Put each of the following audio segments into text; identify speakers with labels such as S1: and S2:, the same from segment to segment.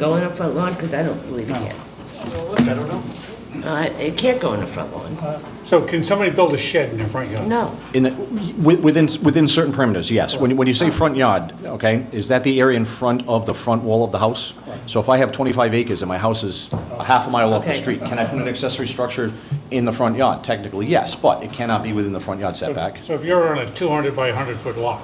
S1: Going up front lawn, because I don't believe it
S2: No.
S1: can.
S3: Well, look, I don't know.
S1: Uh, It can't go in the front lawn.
S2: So can somebody build a shed in their front yard?
S1: No,
S4: In the, wi- within, within certain parameters, yes. When, you- when you say front yard, okay, is that the area in front of the front wall of the house? So if I have 25 acres and my house is a half a mile off the
S1: Okay.
S4: street, can I put an accessory structure in the front yard? Technically, yes, but it cannot be within the front yard setback.
S2: So if you're on a 200 by 100 foot lot,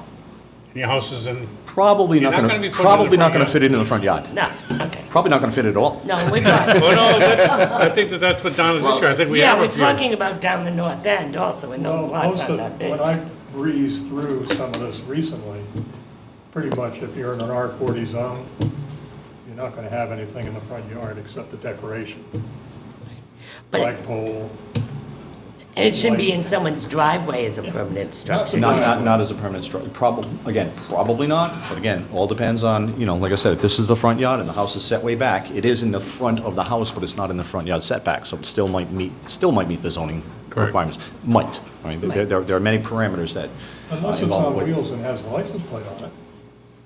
S2: and your house is in,
S4: Probably
S2: You're
S4: not
S2: not
S4: gonna,
S2: gonna be putting it in the
S4: probably not
S2: front
S4: gonna
S2: yard.
S4: fit it in the front yard.
S1: no, okay.
S4: Probably not gonna fit at all.
S1: No, we're talking,
S2: oh, no, that- I think that that's what Donna's issue, I think we
S1: yeah,
S2: have
S1: we're
S2: a few.
S1: talking about down the north end also, and
S3: Well,
S1: those lots
S3: most
S1: aren't
S3: of,
S1: that big.
S3: when I breezed through some of this recently, pretty much if you're in an R40 zone, you're not going to have anything in the front yard except the decoration,
S1: But-
S3: flagpole.
S1: And it shouldn't be in someone's driveway as a permanent structure.
S4: Not, not, not as a permanent structure, probably, again, probably not, but again, all depends on, you know, like I said, if this is the front yard and the house is set way back, it is in the front of the house, but it's not in the front yard setback, so it still might meet, still might meet the zoning
S2: Correct.
S4: requirements. Might, I mean, there, there there are many parameters that. uh,
S3: Unless it's
S4: involve
S3: on
S4: what-
S3: wheels and has a license plate on it.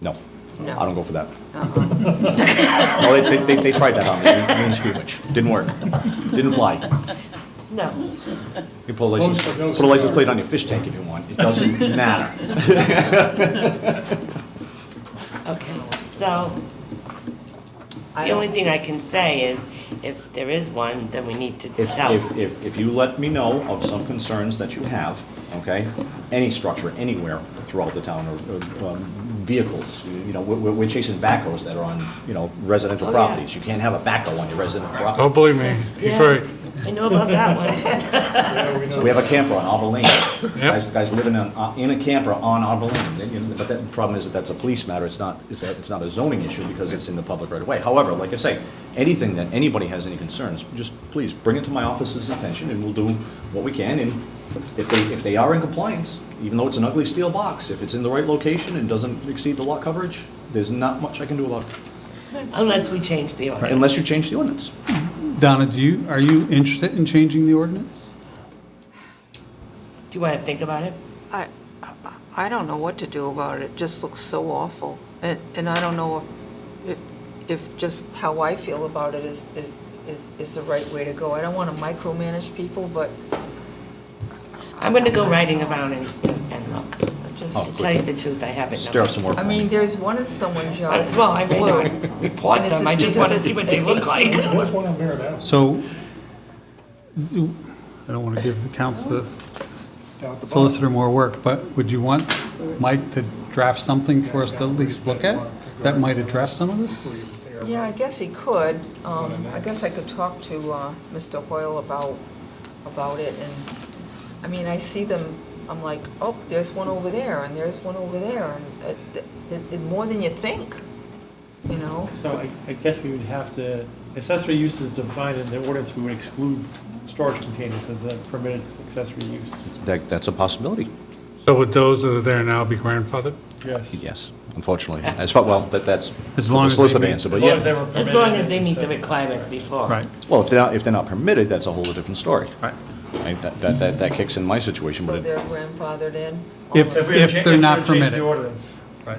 S4: No,
S1: No.
S4: I don't go for that. Well, they, they- they, they tried that on me, me in Squeamish, didn't work, didn't fly.
S1: No,
S4: You put a license,
S3: Most of those
S4: put a license
S3: are-
S4: plate on your fish tank if you want, it doesn't matter.
S1: okay, so, the only thing I can say is, if there is one, then we need to
S4: It's,
S1: tell.
S4: if, if, if you let me know of some concerns that you have, okay, any structure, anywhere throughout the town, or, or um, vehicles, you know, we're, we're chasing backhoes that are on, you know, residential
S1: Oh, yeah.
S4: properties. You can't have a backhoe on your residential property.
S2: Don't believe me, he's
S1: Yeah,
S2: right.
S1: I know about that one.
S3: Yeah, we know.
S4: We have a camper on Arbor Lane. Guys,
S2: Yep.
S4: guys living in, uh, in a camper on Arbor Lane, Then, you know, but that, the problem is that that's a police matter, it's not, it's, a- it's not a zoning issue because it's in the public right of way. However, like I say, anything that anybody has any concerns, just please bring it to my office's attention and we'll do what we can and if they, if they are in compliance, even though it's an ugly steel box, if it's in the right location and doesn't exceed the lot coverage, there's not much I can do about it,
S1: Unless we change the order.
S4: unless you change the ordinance.
S5: Donna, do you, are you interested in changing the ordinance?
S1: Do you want to think about it?
S6: I, I- I don't know what to do about it. It just looks so awful. And, and I don't know if, if just how I feel about it is, is, is is the right way to go. I don't want to micromanage people, but
S1: I'm gonna go riding around and, and look.
S6: I
S4: Oh.
S6: just,
S1: To tell you the truth, I haven't.
S4: Stir up some more.
S6: I mean, there's one in someone's yard
S1: I-
S6: that's
S1: Oh. Well, I may
S6: blue.
S1: not report
S6: And this
S1: them,
S6: is
S1: I just wanna
S6: because
S1: see what they look like.
S3: There's one on Merritt Ave.
S5: So, do- I don't want to give the council,
S3: down at the bottom.
S5: solicitor more work, but would you want Mike to draft something for us to at least look at that might address some of this?
S6: Yeah, I guess he could. Um, I guess I could talk to uh, Mr. Hoyle about, about it, and, I mean, I see them, I'm like, oh, there's one over there, and there's one over there, and it- it- it- more than you think, you know?
S7: So I, I guess we would have to, accessory use is defined in the ordinance, we would exclude storage containers as a permitted accessory use.
S4: That, that's a possibility.
S2: So would those that are there now be grandfathered?
S7: Yes.
S4: Yes, unfortunately. As far, well, that, that's.
S5: As long as
S4: The solicitor
S5: they meet-
S4: answer, but
S7: As long as they
S4: yeah.
S7: were
S1: As
S7: permitted
S1: long as they
S7: in
S1: meet the
S7: setting.
S1: requirements before.
S5: Right.
S4: Well, if they're not, if they're not permitted, that's a whole different story.
S5: Right.
S4: Right, That, that- that, that kicks in my situation,
S6: So
S4: but it-
S6: they're grandfathered in.
S5: If-
S7: we were to cha-
S5: they're
S7: we were
S5: not
S7: to change the
S5: permitted.
S7: ordinance.
S5: Right.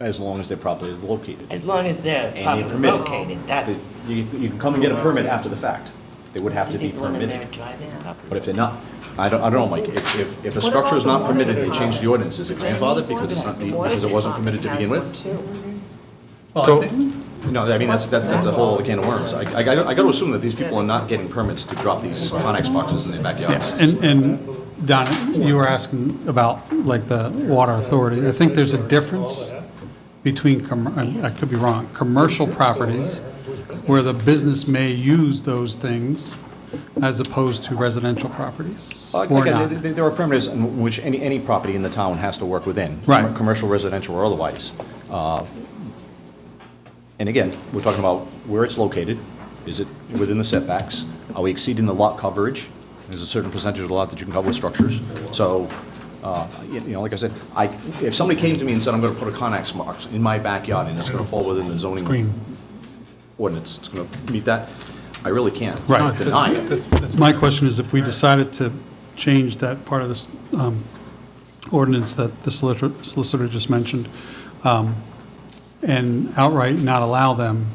S4: as long as they're properly located.
S1: As long as they're
S4: they're
S1: properly
S4: permitted.
S1: located, that's.
S4: They- You, you can come and get a permit after the fact. They would have
S1: You
S4: to be
S1: think the one in Merritt
S4: permitted.
S1: Drive is
S6: Yeah.
S1: properly-
S4: But if they're not, I don't, I don't know, Mike, if, if, if a
S6: What about
S4: structure is
S6: the
S4: not
S6: one in
S4: permitted, they
S6: the-
S4: change the ordinance. Is it
S6: Then
S4: grandfathered
S6: the
S4: because it's
S6: water-
S4: not, the
S6: the water
S4: because it wasn't permitted
S6: department
S4: to begin with?
S6: has one, too.
S5: Well, I think-
S4: No, I mean, that's, that- that's a whole can of worms. I, I gotta I gotta assume that these people are not getting permits to drop these Conex boxes in their backyards.
S5: And, and Donna, you were asking about like the water authority. I think there's a difference between, com- I I could be wrong, commercial properties where the business may use those things as opposed to residential properties
S4: Uh,
S5: or
S4: Again,
S5: not.
S4: th- th- There are parameters in which any, any property in the town has to work within.
S5: Right.
S4: com- Commercial, residential, or otherwise. Uh, And again, we're talking about where it's located, is it within the setbacks? Are we exceeding the lot coverage? There's a certain percentage of the lot that you can cover with structures. So, uh, you you know, like I said, I, if somebody came to me and said, I'm gonna put a Conex box in my backyard and it's gonna fall within the zoning
S2: Green.
S4: ordinance, it's gonna meet that, I really can't
S5: Right.
S4: deny it.
S5: My question is if we decided to change that part of this um, ordinance that the solicitor solicitor just mentioned, um, and outright not allow them